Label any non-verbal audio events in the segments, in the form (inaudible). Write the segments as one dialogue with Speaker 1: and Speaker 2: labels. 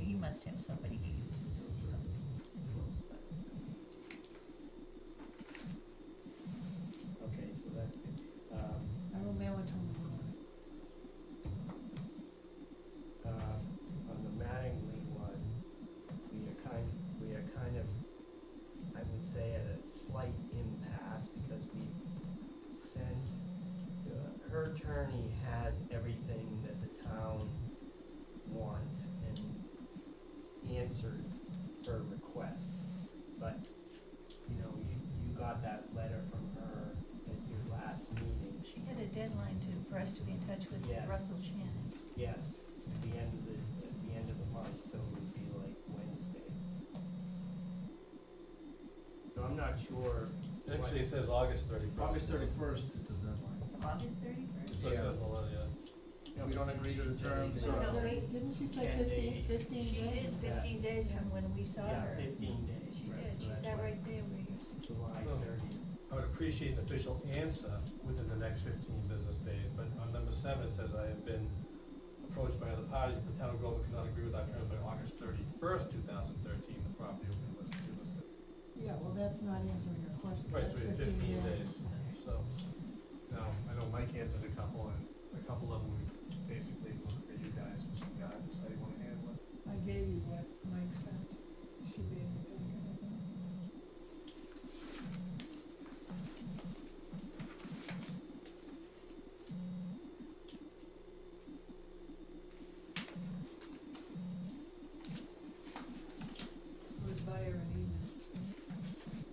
Speaker 1: you must have somebody who uses something.
Speaker 2: Okay, so that's good. Um,
Speaker 3: I will mail it to him tomorrow.
Speaker 2: uh, on the Mattingly one, we are kind, we are kind of, I would say at a slight impasse because we sent, uh, her attorney has everything that the town wants and answered her requests. But, you know, you, you got that letter from her at your last meeting.
Speaker 1: She had a deadline to, for us to be in touch with
Speaker 2: Yes.
Speaker 1: Russell Shannon.
Speaker 2: Yes, at the end of the, at the end of the month, so it would be like Wednesday. So I'm not sure. what-
Speaker 4: Actually, it says August thirty-first.
Speaker 5: August thirty-first is the deadline.
Speaker 1: August
Speaker 4: It
Speaker 1: thirty-first?
Speaker 4: says
Speaker 5: Yeah.
Speaker 4: on the line, yeah.
Speaker 5: If we don't agree to the terms,
Speaker 2: So-
Speaker 3: No,
Speaker 5: uh,
Speaker 3: wait, didn't she say
Speaker 2: Ten
Speaker 3: fifteen,
Speaker 2: days.
Speaker 3: fifteen
Speaker 1: She
Speaker 3: days?
Speaker 1: did fifteen days from when we saw
Speaker 2: Yeah,
Speaker 1: her.
Speaker 2: fifteen days,
Speaker 1: She
Speaker 2: right,
Speaker 1: did,
Speaker 2: so
Speaker 1: she
Speaker 2: that's
Speaker 1: sat
Speaker 2: why
Speaker 1: right there where you're.
Speaker 2: July
Speaker 4: Oh.
Speaker 2: thirtieth.
Speaker 4: I would appreciate an official answer within the next fifteen business days, but on number seven, it says I have been approached by other parties, the town of Groveland cannot agree with our terms by August thirty-first, two thousand thirteen, the property will be listed, delisted.
Speaker 3: Yeah, well, that's not answering your question.
Speaker 4: Right, so we had
Speaker 3: That's
Speaker 4: fifteen days, so, now, I know Mike answered a couple, and a couple of them, we basically look for you guys for some guidance, how you wanna handle it.
Speaker 3: I gave you what Mike sent, You should be in the packet. It was via an email.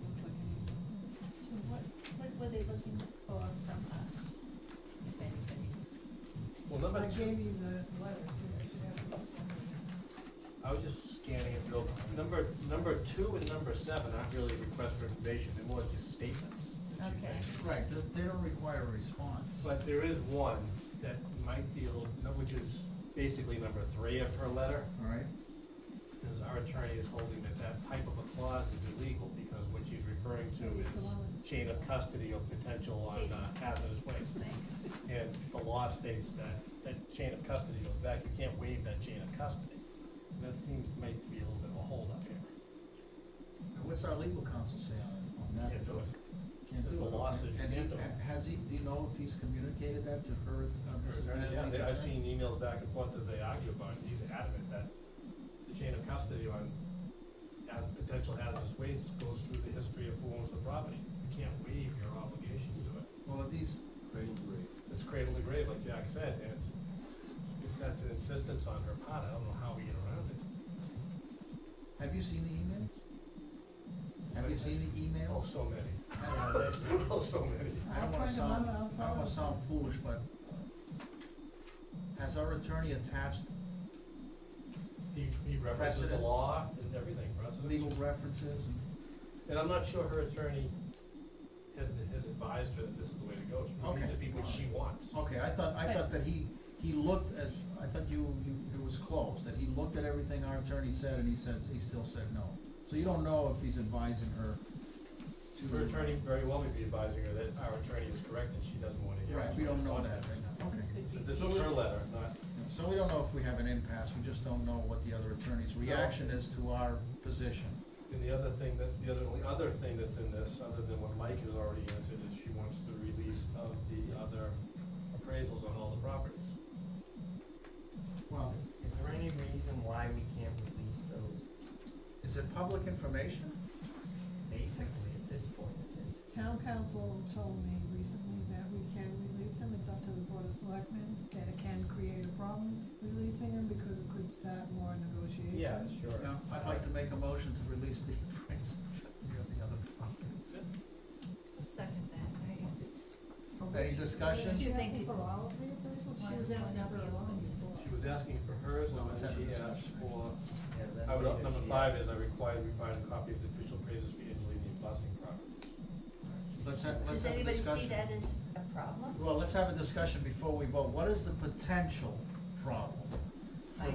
Speaker 3: Looked like an email.
Speaker 1: So what, what were they looking for from us, if anybody's?
Speaker 4: Well, number
Speaker 3: I
Speaker 4: two,
Speaker 3: gave you the letter, too. I should have it.
Speaker 4: I was just scanning it real, number, number two and number seven aren't really requests for information, they're more just statements that you
Speaker 1: Okay.
Speaker 4: make.
Speaker 5: right, they, they don't require a response.
Speaker 4: But there is one that might be, a little- which is basically number three of her letter,
Speaker 5: All right,
Speaker 4: because our attorney is holding that that type of a clause is illegal, because what she's referring to
Speaker 3: It's the
Speaker 4: is
Speaker 3: one with the-
Speaker 4: chain of custody or potential on uh, hazardous waste.
Speaker 1: Thanks.
Speaker 4: And the law states that that chain of custody goes back, you can't waive that chain of custody. And that seems, might be a little bit of a holdup here.
Speaker 5: now what's our legal counsel say on, on that?
Speaker 4: Can't do it.
Speaker 5: Can't do
Speaker 4: The
Speaker 5: it.
Speaker 4: law says you
Speaker 5: And he-
Speaker 4: can't do it.
Speaker 5: and has he, do you know if he's communicated that to her, uh, Mrs.
Speaker 4: Yeah,
Speaker 5: Mattingly's
Speaker 4: they- I've seen
Speaker 5: attorney?
Speaker 4: emails back and forth that they argue about, and he's adamant that the chain of custody on as potential hazardous waste goes through the history of who owns the property. You can't waive your obligations to it.
Speaker 5: Well, these,
Speaker 4: It's cradle to grave, like Jack said, and if that's an insistence on her part, I don't know how we get around it.
Speaker 5: have you seen the emails? Have you seen the
Speaker 4: Oh,
Speaker 5: emails?
Speaker 4: so many. (laughs)
Speaker 5: Uh, that-
Speaker 4: Oh, so many.
Speaker 5: I
Speaker 3: I'll
Speaker 5: don't wanna
Speaker 3: find them out, I'll
Speaker 5: sound, I don't
Speaker 3: find
Speaker 5: wanna
Speaker 3: them.
Speaker 5: sound foolish, but has our attorney attached
Speaker 4: He, he references the
Speaker 5: Precedents.
Speaker 4: law and everything, precedents.
Speaker 5: legal references? and-
Speaker 4: And I'm not sure her attorney has, has advised her that this is the way to go. She needs
Speaker 5: Okay.
Speaker 4: to be what she wants.
Speaker 5: Okay, I thought, I thought that he, he looked as, I thought you, you, it was closed, that he looked at everything our attorney said and he said, he still said no. So you don't know if he's advising her to.
Speaker 4: Her attorney very well may be advising her that our attorney is correct and she doesn't want to hear.
Speaker 5: Right,
Speaker 4: us.
Speaker 5: we don't know that right now, okay.
Speaker 4: So this is her letter, not,
Speaker 5: So we don't know if we have an impasse, we just don't know what the other attorney's reaction is to our position.
Speaker 4: and the other thing that, the other, the other thing that's in this, other than what Mike has already answered, is she wants the release of the other appraisals on all the properties.
Speaker 5: Well,
Speaker 2: Is there any reason why we can't release those,
Speaker 5: is it public information?
Speaker 2: basically at this point it is?
Speaker 3: Town council told me recently that we can release them, it's up to the board of selectmen, that it can create a problem releasing them because it could start more negotiations.
Speaker 2: Yeah, sure.
Speaker 5: Now, I'd like to make a motion to release the appraisal (laughs) of the other properties.
Speaker 1: I'll second that, I if it's.
Speaker 5: Any discussion?
Speaker 3: She
Speaker 1: You think
Speaker 3: asking
Speaker 1: it-
Speaker 3: for all of the appraisals, she was asking for one before.
Speaker 4: She was asking for hers,
Speaker 5: No,
Speaker 4: and
Speaker 5: it's
Speaker 4: then
Speaker 5: under
Speaker 4: she asked
Speaker 5: discussion.
Speaker 4: for,
Speaker 2: Yeah, then
Speaker 4: I would,
Speaker 2: maybe
Speaker 4: number
Speaker 2: she-
Speaker 4: five is I require we find a copy of the official appraisals for Angelini and Blessing property.
Speaker 5: Let's have, let's
Speaker 1: Does
Speaker 5: have a
Speaker 1: anybody
Speaker 5: discussion.
Speaker 1: see that as a problem?
Speaker 5: Well, let's have a discussion before we vote. What is the potential problem?